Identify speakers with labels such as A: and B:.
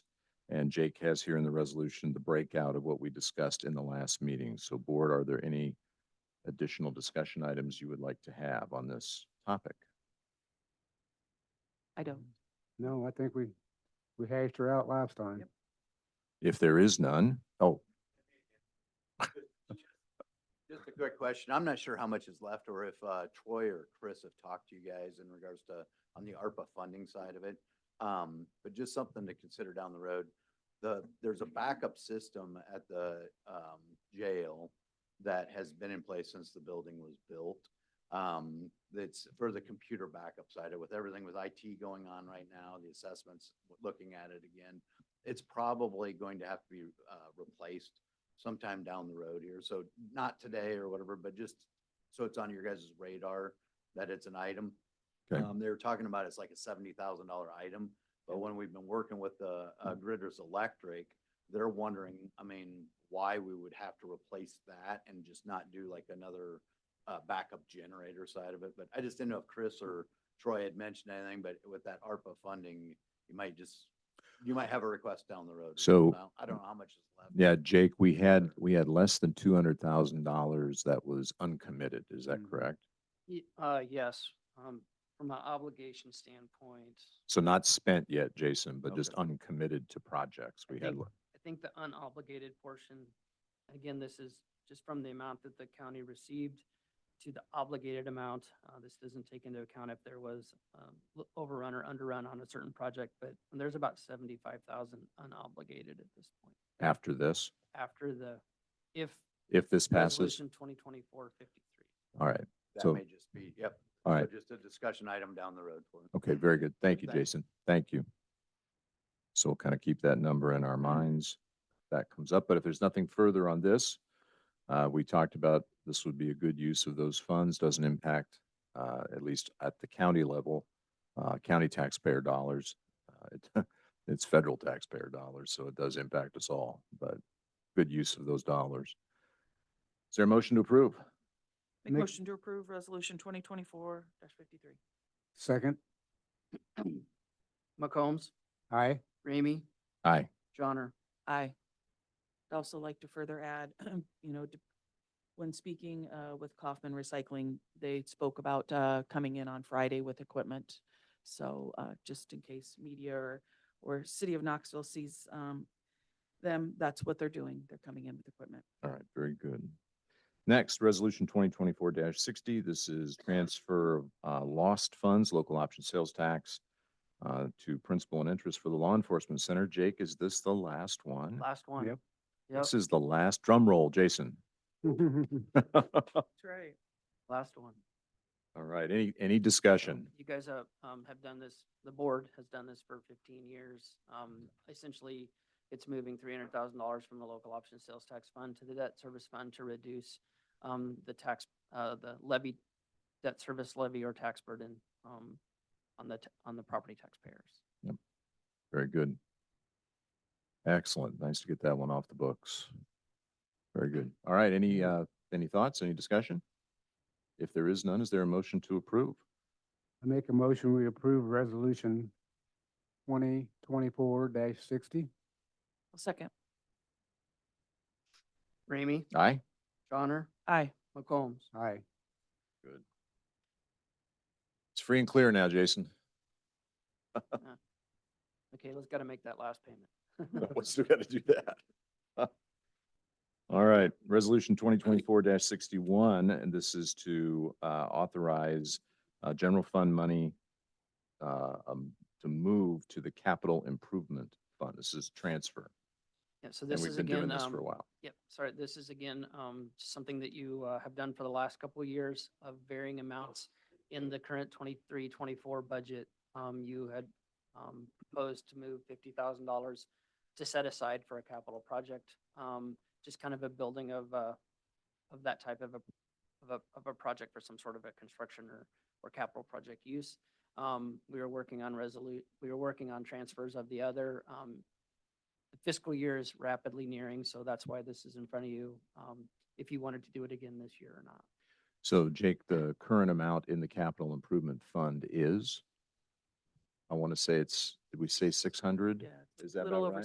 A: and Jake has here in the resolution the breakout of what we discussed in the last meeting. So board, are there any additional discussion items you would like to have on this topic?
B: I don't.
C: No, I think we, we hashed her out last time.
A: If there is none, oh,
D: Just a quick question. I'm not sure how much is left or if uh, Troy or Chris have talked to you guys in regards to, on the ARPA funding side of it. Um, But just something to consider down the road. The, there's a backup system at the um, jail that has been in place since the building was built. Um, That's for the computer backup side of with everything with IT going on right now, the assessments, looking at it again. It's probably going to have to be uh, replaced sometime down the road here. So not today or whatever, but just so it's on your guys' radar that it's an item.
A: Okay.
D: Um, they were talking about it's like a seventy thousand dollar item, but when we've been working with the, uh,
A: Mm-hmm.
D: Gritters Electric, they're wondering, I mean, why we would have to replace that and just not do like another, uh, backup generator side of it. But I just didn't know if Chris or Troy had mentioned anything, but with that ARPA funding, you might just, you might have a request down the road.
A: So-
D: I don't know how much is left.
A: yeah, Jake, we had, we had less than two hundred thousand dollars that was uncommitted. Is that
C: Mhm.
A: correct?
E: Ye- Uh, yes, um, from an obligation standpoint,
A: So not spent yet, Jason, but
D: Okay.
A: just uncommitted to projects
E: I
A: we had.
E: think-
A: le-
E: I think the unobligated portion, again, this is just from the amount that the county received to the obligated amount. Uh, this doesn't take into account if there was, um, l- overrun or underrun on a certain project, but there's about seventy-five thousand unobligated at this point.
A: After this,
E: After the, if
A: if this passes,
E: Resolution twenty twenty-four fifty-three.
A: all right,
D: That
A: So-
D: may just be, yep.
A: all
D: So
A: right.
D: Just a discussion item down the road for us.
A: Okay, very good. Thank you,
D: Thank you.
A: Jason. Thank you. So we'll kind of keep that number in our minds. if That comes up, but if there's nothing further on this, uh, we talked about this would be a good use of those funds, doesn't impact, uh, at least at the county level, uh, county taxpayer dollars. Uh, it- It's federal taxpayer dollars, so it does impact us all, but good use of those dollars. Is there a motion to approve?
B: Make
C: Make-
B: motion to approve resolution twenty twenty-four fifty-three.
C: Second,
E: McCombs,
C: aye,
E: Ramey,
A: Aye.
E: Johnner.
B: Aye. I'd also like to further add, you know, d- when speaking uh, with Kaufman Recycling, they spoke about uh, coming in on Friday with equipment. So uh, just in case media or, or City of Knoxville sees um, them, that's what they're doing. They're coming in with equipment.
A: All right, very good. Next, resolution twenty twenty-four sixty. This is transfer of uh, lost funds, local option sales tax uh, to principal and interest for the law enforcement center. Jake, is this the last one?
E: Last one.
C: Yep.
E: Yep,
A: This is the last drum roll, Jason.
B: That's right.
E: last one.
A: All right, any, any discussion?
E: You guys have, um, have done this, the board has done this for fifteen years. Um, essentially, it's moving three hundred thousand dollars from the local option sales tax fund to the debt service fund to reduce, um, the tax, uh, the levy, debt service levy or tax burden, um, on the, t- on the property taxpayers.
A: Very good. Excellent. Nice to get that one off the books. Very good. All right, any, uh, any thoughts, any discussion? If there is none, is there a motion to approve?
C: I make a motion, we approve resolution twenty twenty-four sixty.
B: I'll Second.
E: Ramey,
A: Aye?
E: Johnner,
B: Aye.
E: McCombs.
C: Aye,
A: It's free and clear now, Jason.
E: Okay, let's gotta make that last payment.
A: We still got to do that. All right, resolution twenty twenty-four sixty-one, and this is to uh, authorize uh, general fund money uh, um, to move to the capital improvement fund. This is transfer.
E: Yeah, so
A: And
E: this
A: we've
E: is
A: been doing
E: again,
A: this for
E: um,
A: a while.
E: Yep, sorry, this is again, um, something that you, uh, have done for the last couple of years of varying amounts in the current 23, 24 budget. Um, you had, um, proposed to move fifty thousand dollars to set aside for a capital project. Um, just kind of a building of, uh, of that type of a, of a, of a project for some sort of a construction or, or capital project use. Um, we were working on resolute, we were working on transfers of the other, um, the fiscal year is rapidly nearing, so that's why this is in front of you, um, if you wanted to do it again this year or not.
A: So Jake, the current amount in the capital improvement fund is? I want to say it's, did we say six hundred?
E: it's
A: Is that
E: a little
A: about
E: over
A: right?